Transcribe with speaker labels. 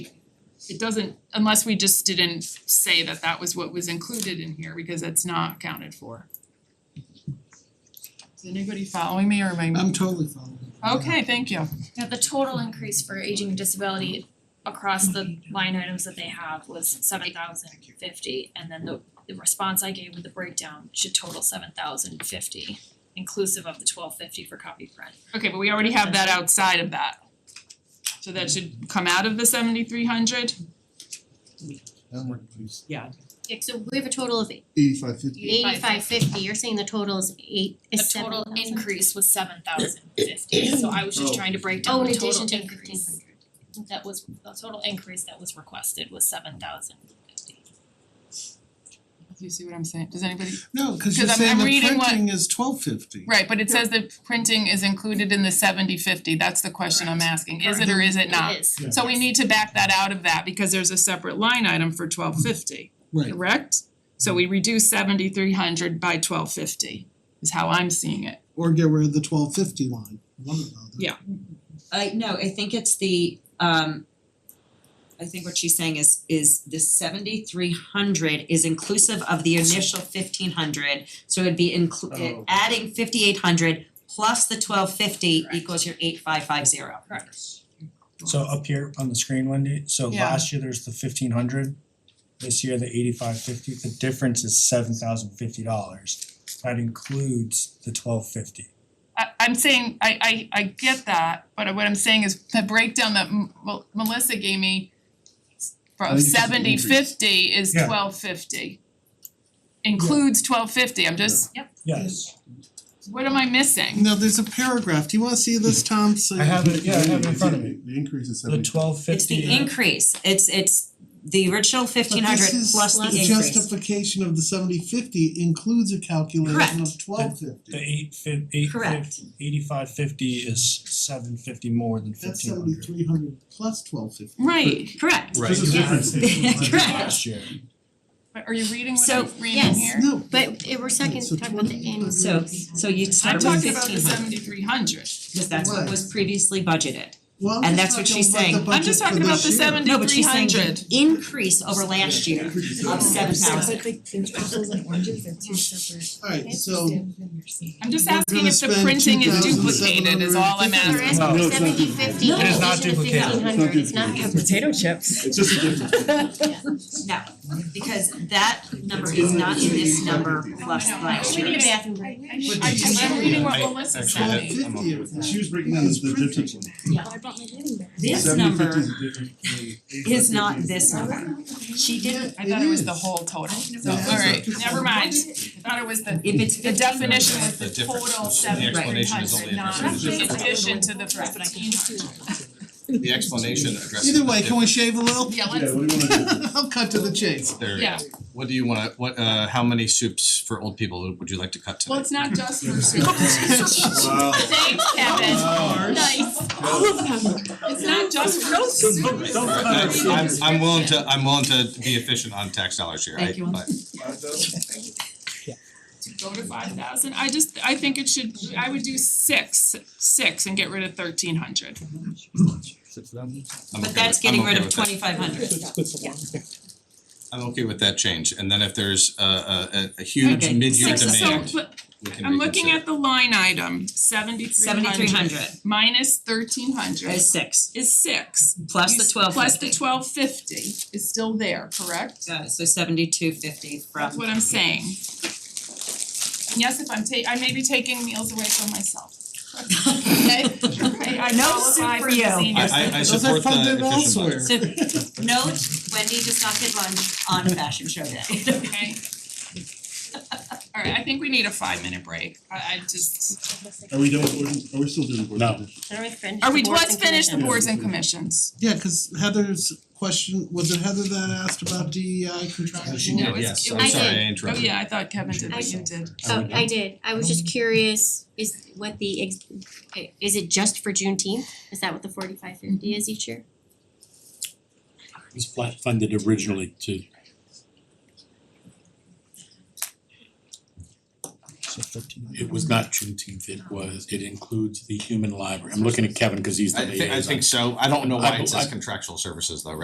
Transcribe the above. Speaker 1: it doesn't, unless we just didn't say that that was what was included in here, because it's not accounted for. Is anybody following me or am I,
Speaker 2: I'm totally following.
Speaker 1: okay, thank you.
Speaker 3: Now, the total increase for aging and disability across the line items that they have was seven thousand fifty. And then the the response I gave with the breakdown should total seven thousand fifty, inclusive of the twelve fifty for copy print.
Speaker 1: Okay, but we already have that outside of that. So that should come out of the seventy three hundred?
Speaker 2: That one, please.
Speaker 4: Yeah, so we have a total of
Speaker 2: Eighty-five fifty.
Speaker 4: eighty-five fifty, you're saying the total is eight, is seven
Speaker 3: The total
Speaker 4: thousand?
Speaker 3: increase was seven thousand fifty, so I was just
Speaker 2: Oh.
Speaker 3: trying to break
Speaker 4: Oh,
Speaker 3: down
Speaker 4: in
Speaker 3: the
Speaker 4: addition
Speaker 3: total
Speaker 4: to fifteen
Speaker 3: increase.
Speaker 4: hundred.
Speaker 3: That was, the total increase that was requested was seven thousand fifty.
Speaker 1: Do you see what I'm saying? Does anybody?
Speaker 2: No, cause you're
Speaker 1: 'Cause I'm-
Speaker 2: saying
Speaker 1: I'm
Speaker 2: the
Speaker 1: reading what-
Speaker 2: printing is twelve fifty.
Speaker 1: Right, but it says that printing is included in the seventy fifty, that's the question I'm asking, is it or is it not?
Speaker 4: It is.
Speaker 2: Yeah.
Speaker 1: So we
Speaker 3: Yes.
Speaker 1: need to back that out of that because there's a separate line item for twelve fifty,
Speaker 2: Right,
Speaker 1: correct? So we reduce seventy three hundred by twelve fifty is how I'm seeing it.
Speaker 2: or get rid of the twelve fifty line, one of those.
Speaker 1: Yeah.
Speaker 5: I no, I think it's the um I think what she's saying is is the seventy three hundred is inclusive of the initial fifteen hundred. So it'd be inclu- it-
Speaker 2: Oh.
Speaker 5: adding fifty eight hundred plus the twelve fifty
Speaker 3: Correct.
Speaker 5: equals your eight five five zero.
Speaker 3: Correct.
Speaker 6: So up here on the screen, Wendy, so
Speaker 1: Yeah.
Speaker 6: last year there's the fifteen hundred, this year the eighty-five fifty, the difference is seven thousand fifty dollars. That includes the twelve fifty.
Speaker 1: I I'm saying, I I I get that, but what I'm saying is the breakdown that M- Mel- Melissa gave me
Speaker 2: I
Speaker 1: from
Speaker 2: think it's an
Speaker 1: seventy
Speaker 2: increase.
Speaker 1: fifty is
Speaker 6: Yeah.
Speaker 1: twelve fifty. Includes twelve fifty, I'm just,
Speaker 6: Yes,
Speaker 1: what am I missing?
Speaker 2: No, there's a paragraph, do you wanna see this, Tom, so?
Speaker 6: I have it, yeah, I have it in front of me.
Speaker 7: The increase is
Speaker 6: The
Speaker 7: seventy.
Speaker 6: twelve
Speaker 5: It's
Speaker 6: fifty.
Speaker 5: the increase. It's it's the original fifteen hundred plus the
Speaker 2: But this is,
Speaker 5: increase.
Speaker 2: the justification of the seventy fifty includes a calculation of
Speaker 5: Correct.
Speaker 2: twelve fifty.
Speaker 6: The eight fif- eight
Speaker 5: Correct.
Speaker 6: fif- eighty-five fifty is seven fifty more than
Speaker 2: That's
Speaker 6: fifteen
Speaker 2: seventy
Speaker 6: hundred.
Speaker 2: three hundred plus twelve fifty.
Speaker 1: Right,
Speaker 5: Correct.
Speaker 7: Right.
Speaker 2: This is different.
Speaker 5: Correct.
Speaker 6: Last year.
Speaker 1: but are you reading what
Speaker 5: So,
Speaker 1: I'm reading
Speaker 4: yes.
Speaker 1: here?
Speaker 2: No,
Speaker 4: But it, we're second,
Speaker 2: So
Speaker 4: talking about the
Speaker 2: 20
Speaker 4: annual.
Speaker 5: So so you
Speaker 1: I'm
Speaker 5: start with
Speaker 1: talking about the
Speaker 5: fifteen hundred,
Speaker 1: seventy three hundred.
Speaker 5: because that's what was previously budgeted.
Speaker 2: well, I'm
Speaker 5: And
Speaker 2: just
Speaker 5: that's what
Speaker 2: talking
Speaker 5: she's
Speaker 2: about the
Speaker 5: saying.
Speaker 1: I'm just
Speaker 2: budget for
Speaker 1: talking about
Speaker 2: this
Speaker 1: the
Speaker 2: year.
Speaker 1: seven-
Speaker 5: No, but she's saying
Speaker 1: 300.
Speaker 5: the increase over last year of seven thousand.
Speaker 8: apples and oranges, they're two separate.
Speaker 2: Alright, so
Speaker 1: I'm just
Speaker 2: We're
Speaker 1: asking
Speaker 2: gonna
Speaker 1: if the
Speaker 2: spend
Speaker 1: printing is
Speaker 2: 2,750.
Speaker 1: duplicated is all I'm asking.
Speaker 4: We're
Speaker 6: No,
Speaker 4: asking
Speaker 6: it's not
Speaker 4: seventy
Speaker 5: duplicated. It
Speaker 4: fifty in
Speaker 5: is
Speaker 4: addition
Speaker 6: not
Speaker 4: to
Speaker 6: duplicated.
Speaker 4: fifteen hundred, it's not duplicated. Oh,
Speaker 8: Potato chips.
Speaker 7: It's just a difference.
Speaker 5: No, because that number is not in this number plus last
Speaker 4: We
Speaker 5: year.
Speaker 4: need a bathroom
Speaker 1: I
Speaker 4: break.
Speaker 1: I'm reading what
Speaker 7: I-
Speaker 1: Melissa
Speaker 7: actually,
Speaker 1: sent me.
Speaker 7: that- I'm okay with that. She was breaking down
Speaker 2: It's
Speaker 7: the the
Speaker 2: printing.
Speaker 7: difference.
Speaker 8: I brought my knitting bag.
Speaker 5: This
Speaker 7: 750
Speaker 5: number
Speaker 7: is a different from the
Speaker 5: is
Speaker 7: 850.
Speaker 5: not this number. She didn't,
Speaker 1: I thought it was the
Speaker 2: It is.
Speaker 1: whole total, so
Speaker 2: Yeah.
Speaker 1: alright, never mind, I thought it was the
Speaker 5: if it's
Speaker 1: The
Speaker 5: fifteen hundred.
Speaker 1: definition was the
Speaker 9: The difference,
Speaker 1: total
Speaker 9: the
Speaker 1: seven three
Speaker 9: explanation is
Speaker 1: hundred,
Speaker 9: only a
Speaker 1: not
Speaker 9: percentage
Speaker 1: in
Speaker 8: difference.
Speaker 1: addition to the
Speaker 8: Right, but I can
Speaker 1: fifteen
Speaker 8: just do
Speaker 1: hundred.
Speaker 8: it.
Speaker 9: The explanation addresses.
Speaker 2: Either
Speaker 9: the
Speaker 2: way, can we shave a little?
Speaker 1: Yeah,
Speaker 7: Yeah,
Speaker 1: let's,
Speaker 7: what do you wanna do?
Speaker 2: I'll cut to the chase.
Speaker 9: difference. There you
Speaker 1: yeah,
Speaker 9: go. What do you wanna, what uh how many soups for old people would you like to cut today?
Speaker 1: well, it's not just for soup.
Speaker 7: Wow.
Speaker 1: Thanks, Kevin, nice,
Speaker 8: All of them.
Speaker 1: it's not just for soup.
Speaker 7: Don't
Speaker 9: Uh,
Speaker 7: cut
Speaker 9: I'm
Speaker 7: it.
Speaker 9: I'm willing to, I'm willing to be efficient on tax dollars here, I
Speaker 5: Thank you.
Speaker 9: but
Speaker 1: Go to five thousand, I just, I think it should, I would do six, six and get rid of thirteen hundred.
Speaker 9: I'm okay
Speaker 5: But that's
Speaker 9: with- I'm
Speaker 5: getting rid
Speaker 9: okay
Speaker 5: of
Speaker 9: with that.
Speaker 5: twenty five hundred.
Speaker 9: I'm okay with that change, and then if there's a a a- a huge
Speaker 5: Okay.
Speaker 9: mid-year
Speaker 1: Six, so,
Speaker 9: demand,
Speaker 1: but
Speaker 9: we can
Speaker 1: I'm looking
Speaker 9: reconsider.
Speaker 1: at the line item, seventy-three hundred.
Speaker 5: Seventy three hundred
Speaker 1: Minus thirteen hundred
Speaker 5: is six,
Speaker 1: is six.
Speaker 5: plus the
Speaker 1: You s-
Speaker 5: twelve
Speaker 1: Plus the
Speaker 5: fifty.
Speaker 1: twelve fifty is still there, correct?
Speaker 5: Got it, so seventy two fifty
Speaker 1: That's
Speaker 5: from,
Speaker 1: what I'm saying. And Yes, if I'm ta- I may be taking meals away from myself. Okay, I I
Speaker 5: No
Speaker 1: qualify
Speaker 5: soup
Speaker 1: for
Speaker 5: for
Speaker 1: the
Speaker 5: you.
Speaker 1: senior
Speaker 9: I-
Speaker 1: center.
Speaker 9: I
Speaker 2: Those are
Speaker 9: support the
Speaker 2: funded
Speaker 9: efficient budget.
Speaker 2: elsewhere.
Speaker 5: so note Wendy does not get lunch on a fashion show day.
Speaker 1: Okay. Alright, I think we need a five minute break. I I just,
Speaker 7: Are we done with board, are we still doing board?
Speaker 6: No.
Speaker 7: positions?
Speaker 4: Are we finished?
Speaker 1: are we,
Speaker 4: The boards
Speaker 1: let's
Speaker 4: and
Speaker 1: finish the
Speaker 4: commissions.
Speaker 1: boards and commissions.
Speaker 2: Yeah, cause Heather's question, was it Heather that asked about DEI contractual?
Speaker 9: Oh, she
Speaker 1: No,
Speaker 9: did,
Speaker 1: it's-
Speaker 9: yes,
Speaker 1: it
Speaker 9: I'm
Speaker 4: was-
Speaker 9: sorry,
Speaker 4: I
Speaker 9: I
Speaker 4: did.
Speaker 1: Oh
Speaker 9: interrupted.
Speaker 1: yeah, I thought Kevin did, but you did.
Speaker 4: Oh, I did, I was just curious, is what the ex- is it just for Juneteenth? Is that what the forty-five fifty is each year?
Speaker 10: It was flat funded originally to
Speaker 6: So fifteen hundred.
Speaker 10: it was not Juneteenth, it was, it includes the human library. I'm looking at Kevin because he's the
Speaker 9: I
Speaker 10: liaison.
Speaker 9: think I think so, I don't know why
Speaker 10: I-
Speaker 9: it says
Speaker 10: I-
Speaker 9: contractual services though, right?